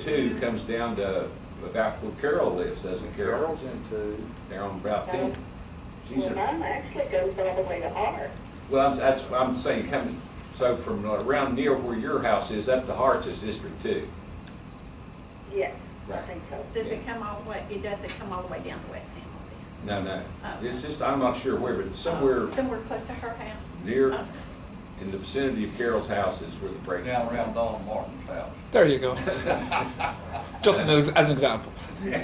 two comes down to about where Carol lives, doesn't it? Carol's in two, they're on Route ten. She's, Well, in- mine actually goes all the way to Hart. well, I'm- that's, I'm saying coming, so from around near where your house is, up to Hart's is District Two. Yes, I Right. think so. Does it come all the way, it doesn't come all the way down to West Hamilton? No, no, Oh. it's just, I'm not sure where, but somewhere Uh, Somewhere close to her house? near, Oh. in the vicinity of Carol's house is where the break. down around Don Martin's house. There you go. Just as, as an example. As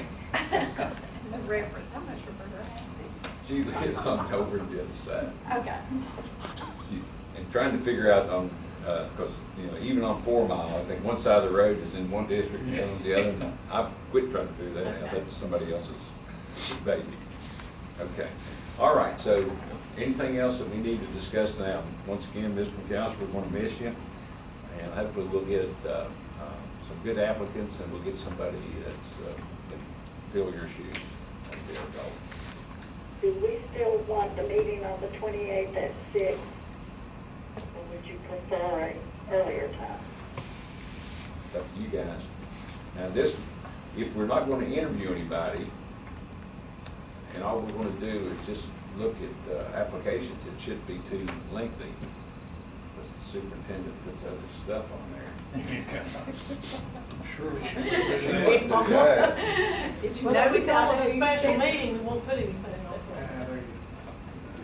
a reference, how much for her house She lives on over on the other side. is? Okay. You- And trying to figure out on, because, you know, even on four mile, I think one side of the road is in one district and one's the other. and I've quit trying to figure that out. That's somebody else's baby. Okay. All right, so anything else that we need to discuss now? Once again, Ms. McCouse, we're going to miss you. And hopefully we'll get uh, uh, some good applicants and we'll get somebody that's, uh, can fill your shoes. That'd be our goal. Do we still want the meeting on the twenty-eighth at six? Or would you prefer an earlier time? It's up to you guys. Now, this, if we're not gonna interview anybody, and all we're gonna do is just look at uh, applications, it shouldn't be too lengthy. Because the superintendent puts other stuff on there. Sure. She wants to judge. Did you Well, if we notice all call it a those? special meeting, we won't put anything else Uh, on.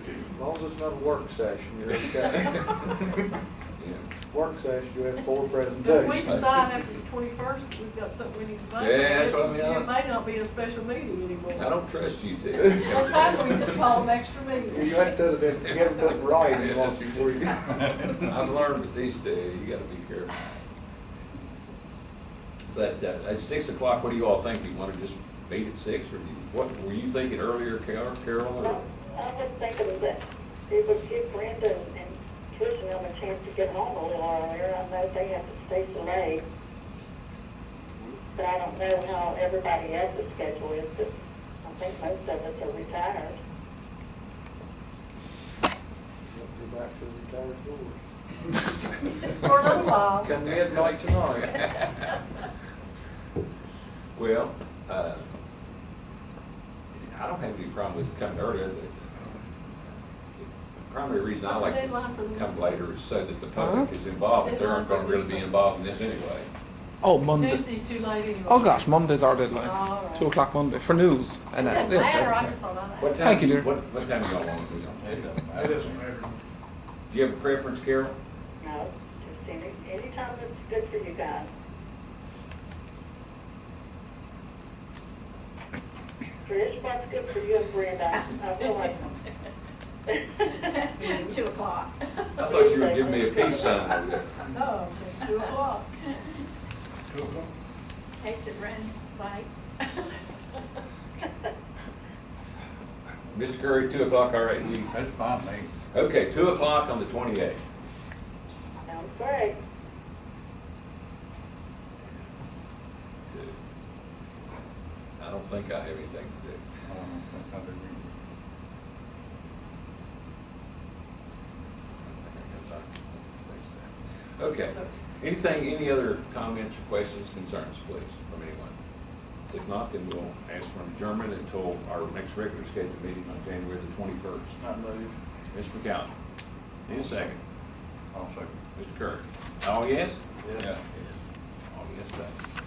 As long as it's not a work session, you're okay. Yeah. Work session, you have four If we presentations. decide after the twenty-first, we've got something we need to vote on. Yeah, that's what I mean. It may not be a special meeting I anymore. don't trust you two. Sometimes we just call them extra meetings. You have to, you have to write it once before you. I've learned with these two, you gotta be careful. But uh, at six o'clock, what do you all think? Do you wanna just meet at six, or do you- what, were you thinking earlier, Carol, Carol? or- Well, I was thinking that it would give Brenda and Trish and them a chance to get home a little earlier. I know they have to stay so late. But I don't know how everybody else's schedule is, but I think most of us are retired. Go back to the retired board. For a little while. Come midnight tonight. Well, uh, I don't have any problem with coming earlier. The the primary reason I What's the like deadline for to the- come later is so that the public is involved, but they aren't gonna really be involved in this anyway. Oh, Monday. Tuesday's too late anyway. Oh gosh, Monday's our deadline. All right. Two o'clock Monday for news. It And that, doesn't matter, I just thought I What that. time, Thank do you, you- dear. what, what time do y'all want to be on? It doesn't matter. It doesn't matter. Do you have a preference, Carol? No, just any, anytime that's good for you guys. Trish, what's good for you and Brenda? I feel like. Two o'clock. I thought you were giving me a peace sign over there. No, it's Oh, two o'clock. Case it runs late. Mr. Curry, two o'clock, all right, you, That's fine, me. okay, two o'clock on the twenty-eighth. Sounds great. I don't think I have anything to do. I don't think I do. Okay. Anything, any other comments, questions, concerns, please, from anyone? If not, then we'll ask for an adjournment until our next regular scheduled meeting on January the twenty-first. I move. Mr. McCallum, need a second? I'll second. Mr. Kirk? All yes? Yeah. All yes, thank you.